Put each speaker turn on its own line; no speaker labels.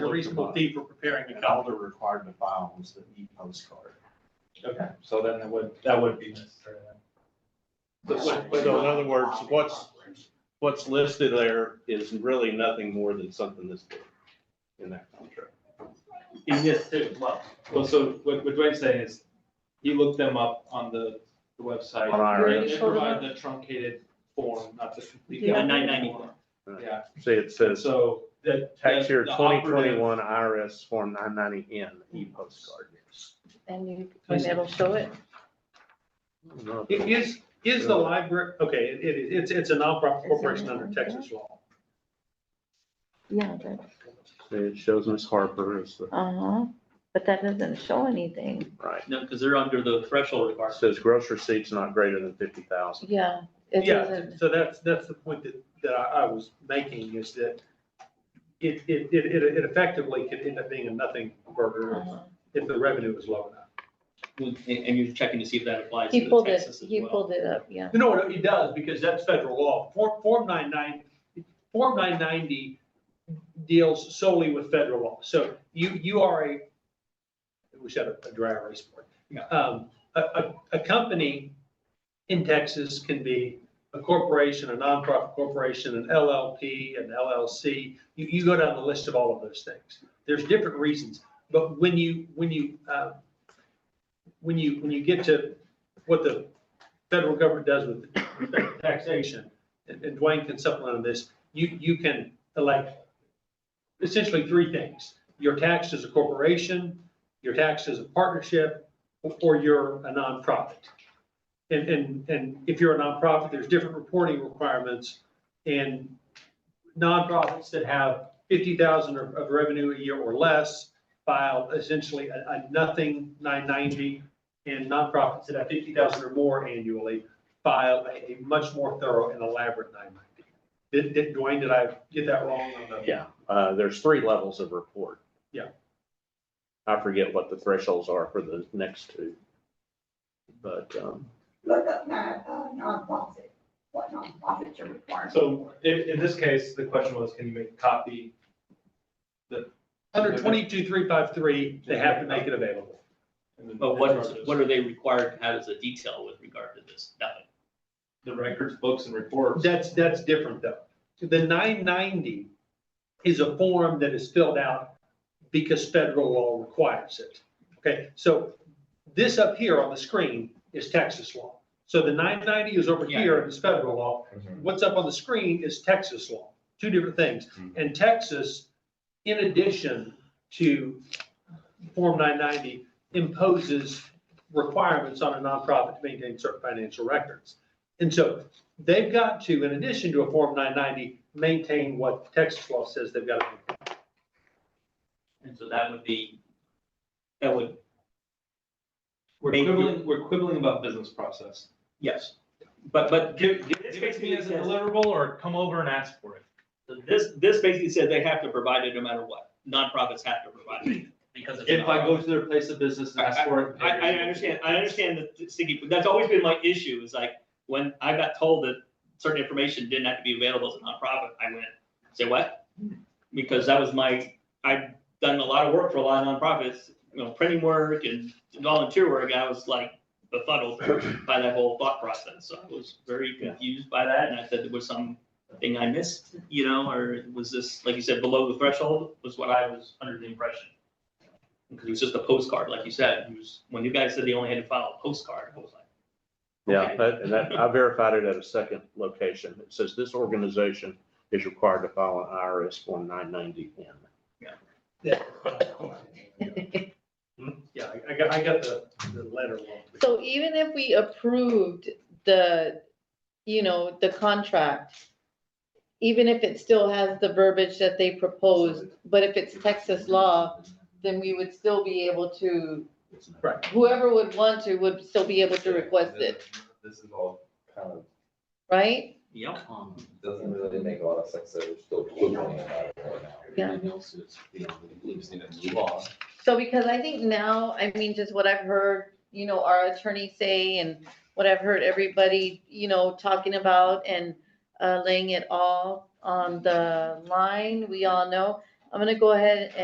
reasonable fee for preparing
And
a copy.
all they're required to file was the
E
e-postcard.
Okay, so then that would, that would be necessary then.
But what- but-
So uh, in other words, what's, what's listed there is really nothing more than something that's there in that contract.
In this too, well. Well, so what, what Dwayne's saying is, he looked them up on the, the website.
On IRS.
They provide the truncated form, not the complete.
Yeah,
form.
994.
Yeah,
See, it says
so that.
tax
that
year
the
twenty
operative-
twenty-one IRS form nine ninety N e-postcard.
And you, and it'll show it.
No,
It Is, is the library, okay, it, it- it's, it's a nonprofit corporation under Texas law.
Yeah, that,
see, It shows Miss Harper is the,
uh-huh, but that doesn't show anything.
right.
No, because they're under the threshold
It
requirement.
Says gross receipts not greater than fifty thousand.
Yeah, it
Yeah,
doesn't,
so that's, that's the point that, that I, I was making is that it, it, it, it it effectively could end up being a nothing burger
uh-huh.
if the revenue is low enough.
And, and you're checking to see if that applies
He
to
pulled it,
Texas as
he
well.
pulled it up, yeah.
No, no, it does, because that's federal law. Form, Form 99, Form 990 deals solely with federal law. So you, you are a, we should have a dry erase board.
Yeah.
Um, a, a, a company in Texas can be a corporation, a nonprofit corporation, an LLP, an LLC. You, you go down the list of all of those things. There's different reasons, but when you, when you, uh, when you, when you get to what the federal government does with respect to taxation, and and Dwayne can supplement on this, you, you can elect essentially three things. You're taxed as a corporation, you're taxed as a partnership, or you're a nonprofit. And, and, and if you're a nonprofit, there's different reporting requirements. And nonprofits that have fifty thousand of of revenue a year or less file essentially a, a nothing nine ninety and nonprofits that have fifty thousand or more annually file a, a much more thorough and elaborate nine ninety. Did, did, Dwayne, did I get that wrong on the?
Yeah, uh, there's three levels of report.
Yeah.
I forget what the thresholds are for the next two. But, um,
look up not, uh, nonprofit, what nonprofits are required.
So in, in this case, the question was, can you make a copy?
Under twenty-two, three, five, three, they have to make it available.
and then-
But what is, what are they required to have as a detail with regard to this? Nothing.
The records, books and reports.
That's, that's different though. The nine ninety is a form that is filled out because federal law requires it. Okay, so this up here on the screen is Texas law. So the nine ninety is over
Yeah. Mm-hmm.
here and it's federal law. what's up on the screen is Texas law, two different things.
Mm-hmm.
Mhm.
And Texas, in addition to Form 990, imposes requirements on a nonprofit to maintain certain financial records. And so they've got to, in addition to a Form 990, maintain what Texas law says they've got to. maintain.
And so that would be, that would,
We're
Thank you.
quibbling, we're quibbling about business process.
yes. But, but give, give.
This
give
gets
it to
me as a deliverable or come over and ask for it.
This, this basically says they have to provide it no matter what. Nonprofits have to provide it because it's. a
If I go
nonprofit.
to their place of business and ask for it.
I, I understand, I understand the sticky, but that's always been my issue, is like, when I got told that certain information didn't have to be available as a nonprofit, I went, say what? Because that was my, I've done a lot of work for a lot of nonprofits, you know, printing work and volunteer work, I was like befuddled by that whole thought process, so I was very confused by that, and I said there was some thing I missed, you know, or was this, like you said, below the threshold, was what I was under the impression. Because it was just a postcard, like you said, it was, when you guys said they only had to file a postcard, I was like.
yeah,
okay.
that, and that, I verified it at a second location. It says this organization is required to file an IRS form nine ninety N.
Hmm? Yeah, I- I got, I got the, the letter wrong.
So even if we approved the, you know, the contract, even if it still has the verbiage that they proposed, but if it's Texas law, then we would still be able to,
Right.
whoever would want to would still be able to request it,
This is all kind of, um,
right?
Yep.
doesn't really make a lot of sense, that we're still quibbling about it right now.
Yeah.
Everything else is, you know, we just need to move on.
So because I think now, I mean, just what I've heard, you know, our attorney say and what I've heard everybody, you know, talking about and uh, laying it all on the line, we all know. I'm gonna go ahead